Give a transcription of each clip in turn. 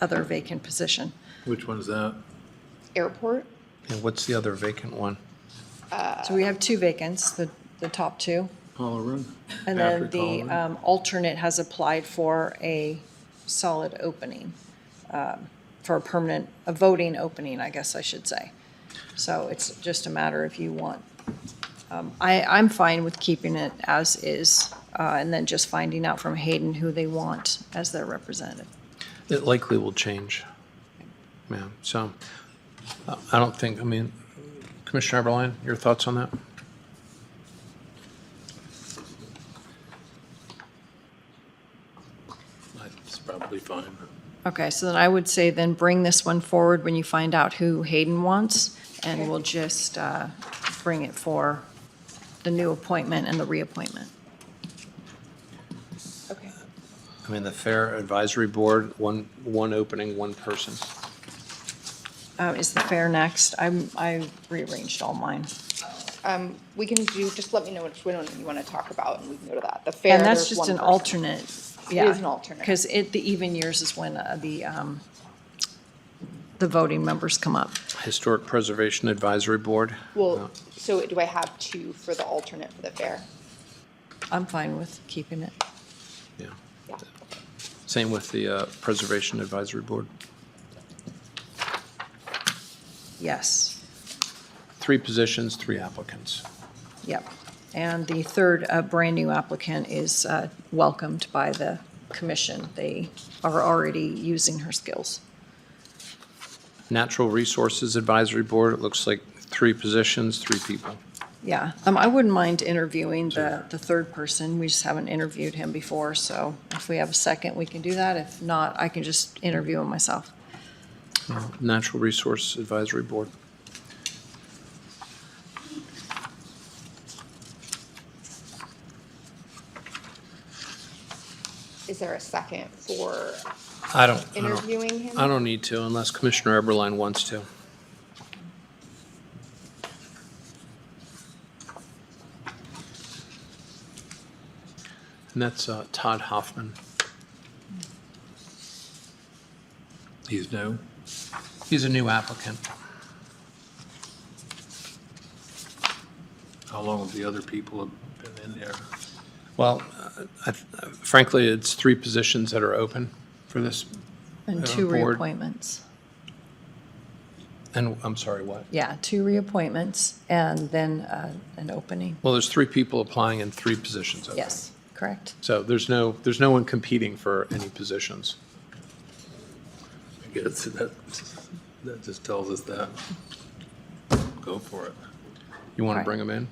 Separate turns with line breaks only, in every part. other vacant position.
Which one's that?
Airport?
And what's the other vacant one?
So we have two vacants, the, the top two.
Paula Run?
And then the um, alternate has applied for a solid opening, um, for a permanent, a voting opening, I guess I should say. So it's just a matter if you want. Um, I, I'm fine with keeping it as is, uh, and then just finding out from Hayden who they want as their representative.
It likely will change. Yeah, so uh, I don't think, I mean, Commissioner Eberline, your thoughts on that?
It's probably fine.
Okay, so then I would say then bring this one forward when you find out who Hayden wants, and
Okay.
we'll just uh, bring it for the new appointment and the reappointment.
Okay.
I mean, the Fair Advisory Board, one, one opening, one person.
Uh, Is the fair next? I'm, I rearranged all mine.
We can do, just let me know which one you want to talk about and we can go to that. The fair,
And that's
there's
just
one
an
person.
alternate.
It is an alternate.
Because it, the even years is when uh, the, um, the voting members come up.
Historic Preservation Advisory Board. Uh,
Well, so do I have two for the alternate for the fair?
I'm fine with keeping it.
Yeah.
Yeah.
Same with the uh, Preservation Advisory Board.
Yes,
Three positions, three applicants.
yep. And the third, uh, brand-new applicant is uh, welcomed by the commission. They are already using her skills.
Natural Resources Advisory Board, it looks like three positions, three people.
Yeah, um, I wouldn't mind interviewing the, the third person, we just haven't interviewed him before, so if we have a second, we can do that, if not, I can just interview him myself.
Natural Resource Advisory Board.
Is there a second for
I don't, I don't,
interviewing him?
I don't need to unless Commissioner Eberline wants to. And that's uh, Todd Hoffman.
He's no?
He's a new applicant.
How long have the other people have been in there?
Well, uh, I- frankly, it's three positions that are open for this.
And
Uh,
two
board.
reappointments,
And, I'm sorry, what?
yeah, two reappointments, and then, uh, an opening,
Well, there's three people applying and three positions open.
yes, correct?
So there's no, there's no one competing for any positions.
I guess that, that just tells us that. Go for it.
You want to
Right.
bring him in?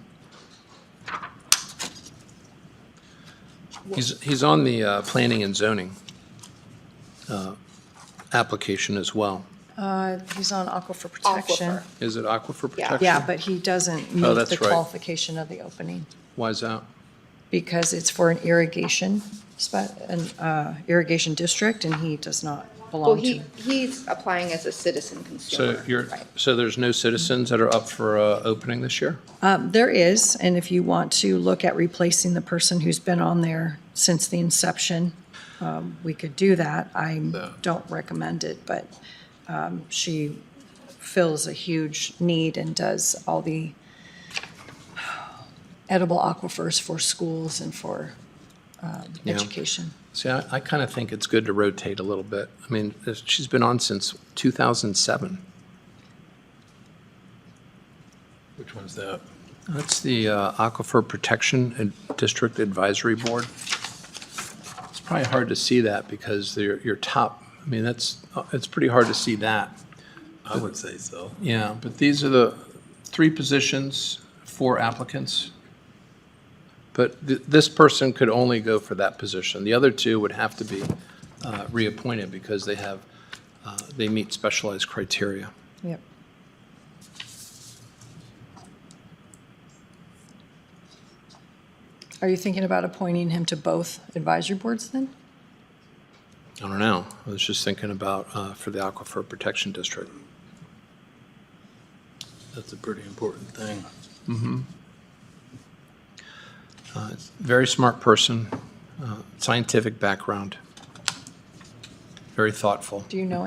He's, he's on the uh, planning and zoning uh, application as well.
Uh, he's on aquifer protection.
Aquifer.
Is it aquifer
Yeah.
protection?
Yeah, but he doesn't meet
Oh, that's
the
right.
qualification of the opening,
Why is that?
because it's for an irrigation spot, an, uh, irrigation district, and he does not
Well,
belong to.
he, he's applying as a citizen consumer.
So you're,
Right.
so there's no citizens that are up for uh, opening this year?
Um, There is, and if you want to look at replacing the person who's been on there since the inception, um, we could do that. I don't recommend it, but um, she fills a huge need and does all the edible aquifers for schools and for um,
Yeah.
education.
See, I, I kind of think it's good to rotate a little bit. I mean, if- she's been on since 2007.
Which one's that?
That's the uh, Aquifer Protection and District Advisory Board. It's probably hard to see that because they're, your top, I mean, that's, uh, it's pretty hard to see that.
I would say so.
Yeah, but these are the three positions, four applicants. But th- this person could only go for that position. The other two would have to be uh, reappointed because they have, uh, they meet specialized criteria.
Yep. Are you thinking about appointing him to both advisory boards then?
I don't know. I was just thinking about uh, for the Aquifer Protection District.
That's a pretty important thing.
Very smart person, uh, scientific background.
Very thoughtful.
Do you know